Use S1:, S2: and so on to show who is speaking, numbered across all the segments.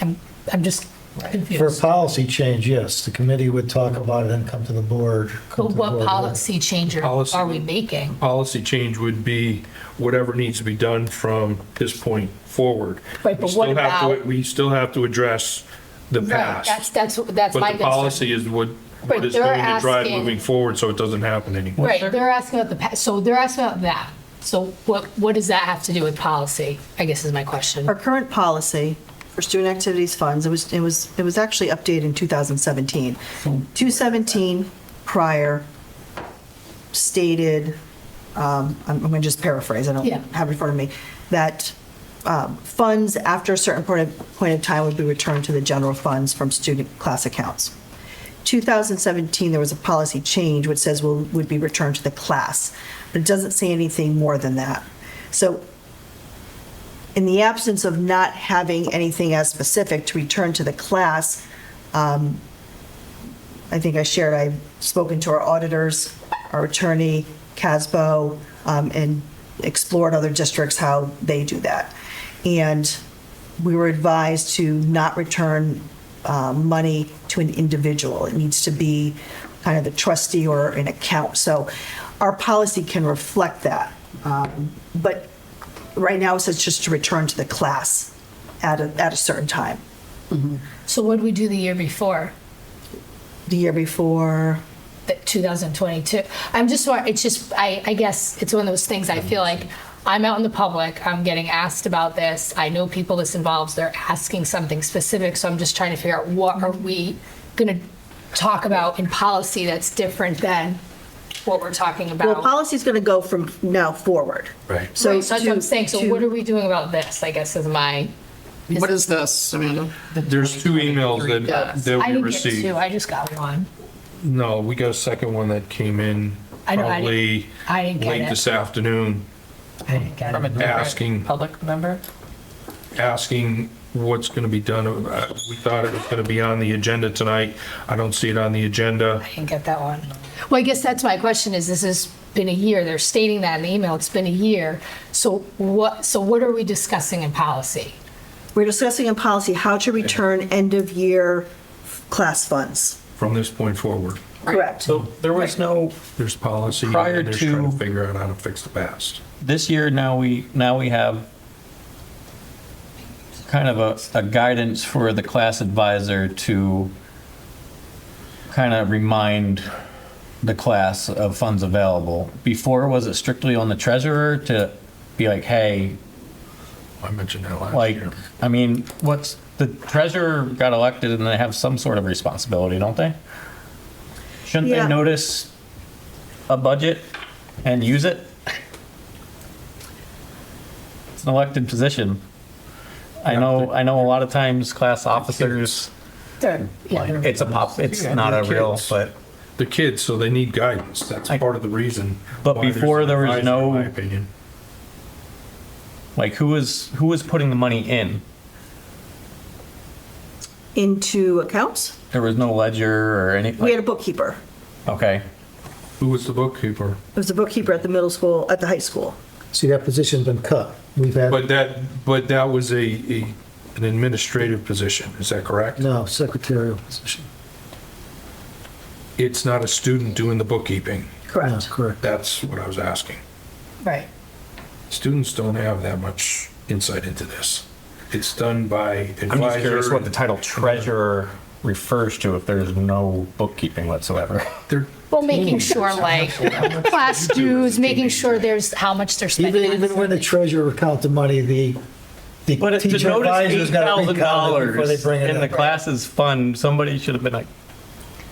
S1: I'm, I'm just
S2: For
S1: confused.
S2: policy change, yes, the committee would talk about it and come to the board. come
S1: But
S2: to the
S1: what
S2: board.
S1: policy change are
S3: Policy.
S1: are we making?
S3: Policy change would be whatever needs to be done from this point forward.
S1: Right, but
S3: We still
S1: what
S3: have to-
S1: about-
S3: We still have to address the
S1: Right, That's,
S3: past.
S1: that's, that's my
S3: But the
S1: concern.
S3: policy is what,
S1: Right,
S3: what is
S1: they're
S3: going to drive
S1: asking-
S3: moving forward, so it doesn't happen anymore.
S1: Right, they're asking about the, pa- so they're asking about that. So what, what does that have to do with policy, I guess is my question.
S4: Our current policy for student activities funds, it was, it was, it was actually updated in 2017. 217 prior stated, um, I'm going to just paraphrase, I don't
S1: Yeah.
S4: have it in front of me, that um, funds after a certain point of, point of time would be returned to the general funds from student class accounts. 2017, there was a policy change which says will, would be returned to the class, but it doesn't say anything more than that. So in the absence of not having anything as specific to return to the class, um, I think I shared, I've spoken to our auditors, our attorney, CASBO, um, and explored other districts, how they do that. And we were advised to not return uh, money to an individual. It needs to be kind of the trustee or an account. So our policy can reflect that. Um, But right now, it says just to return to the class at a, at a certain time.
S1: So what did we do the year before,
S4: The year before,
S1: that 2022? I'm just, wa- it's just, I, I guess it's one of those things I feel like I'm out in the public, I'm getting asked about this. I know people this involves, they're asking something specific, so I'm just trying to figure out what are we going to talk about in policy that's different than what we're talking
S4: well,
S1: about?
S4: policy's going to go from now forward.
S3: Right.
S4: So
S1: Right, so that's what I'm
S4: to-
S1: saying, so
S4: to-
S1: what are we doing about this, I guess is my,
S5: What is this? I mean,
S3: There's two emails that,
S1: I
S3: that we
S1: didn't get
S3: received.
S1: two, I just got one.
S3: No, we got a second one that came in
S1: I know, I didn't-
S3: probably
S1: I didn't get
S3: late
S1: it.
S3: this afternoon,
S1: I didn't get
S5: from a
S1: it.
S5: different
S3: Asking.
S5: public member?
S3: asking what's going to be done. Uh, We thought it was going to be on the agenda tonight. I don't see it on the agenda.
S1: I didn't get that one. Well, I guess that's my question is, this has been a year, they're stating that in the email, it's been a year. So what, so what are we discussing in policy?
S4: We're discussing in policy how to return end-of-year class funds.
S3: From this point forward,
S4: Correct.
S6: So there was no,
S3: there's policy and
S6: Prior
S3: then there's trying to
S6: to-
S3: figure out how to fix the past.
S6: this year now we, now we have kind of a, a guidance for the class advisor to kind of remind the class of funds available. Before, was it strictly on the treasurer to be like, hey,
S3: I mentioned that last
S6: like,
S3: year.
S6: I mean, what's, the treasurer got elected and they have some sort of responsibility, don't they? Shouldn't
S4: Yeah.
S6: they notice a budget and use it? It's an elected position. I know, I know a lot of times class officers,
S1: They're- yeah, they're-
S6: it's a pop, it's not a real, but,
S3: The kids, so they need guidance. That's
S6: I-
S3: part of the reason.
S6: But
S3: why there's
S6: before
S3: an
S6: there was
S3: advisor, in
S6: no-
S3: My opinion.
S6: like, who is, who is putting the money in?
S4: Into accounts,
S6: There was no ledger or anything.
S4: we had a bookkeeper.
S6: Okay,
S3: Who was the bookkeeper?
S4: It was a bookkeeper at the middle school, at the high school.
S2: See, that position's been cut. We've
S3: But
S2: had,
S3: that, but that was a, a- an administrative position, is that correct?
S2: no, secretarial position.
S3: It's not a student doing the bookkeeping.
S2: No, Correct.
S3: That's what I was asking.
S1: Right.
S3: Students don't have that much insight into this. It's done by
S6: I'm just curious what the
S3: advisor.
S6: title treasurer refers to if there's no bookkeeping whatsoever.
S3: They're-
S1: Well, making sure like class dues, making sure there's how much they're
S2: Even,
S1: spending. on
S2: even when the
S1: something.
S2: treasurer counted money, the, the
S6: But to
S2: teacher
S6: notice
S2: advisor's
S6: eight
S2: got to
S6: thousand
S2: be counted before they
S6: dollars
S2: bring
S6: in the
S2: it up.
S6: classes fund, somebody should have been like,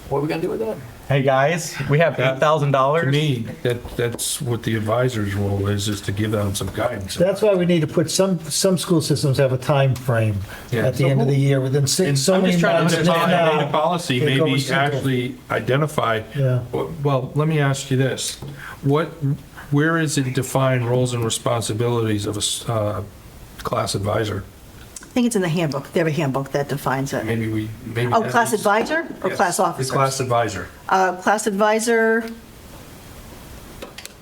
S5: What are we gonna do with that?
S6: "Hey guys, we have
S3: That-
S6: eight thousand
S3: To
S6: dollars."
S3: me, that, that's what the advisor's role is, is to give them some guidance.
S2: That's why we need to put, some, some school systems have a time frame
S3: Yeah.
S2: at the end of the year, within
S3: And
S2: six, so
S6: I'm
S2: many
S6: just trying
S2: months.
S6: to
S3: If I
S6: understand
S2: now,
S3: made a policy,
S2: it
S3: maybe
S2: goes into-
S3: actually identify.
S2: Yeah.
S3: Well, let me ask you this. What, where is it defined roles and responsibilities of a, s- uh, class advisor?
S4: I think it's in the handbook, they have a handbook that defines it.
S3: Maybe we, maybe.
S4: Oh,
S3: that
S4: class
S3: is-
S4: advisor or
S3: Yes,
S4: class
S3: the
S4: officer?
S3: Class advisor.
S4: Uh, Class advisor,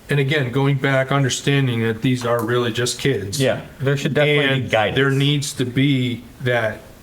S3: And again, going back, understanding that these are really just kids.
S6: Yeah, there should definitely be
S3: And
S6: guidance.
S3: there needs to be that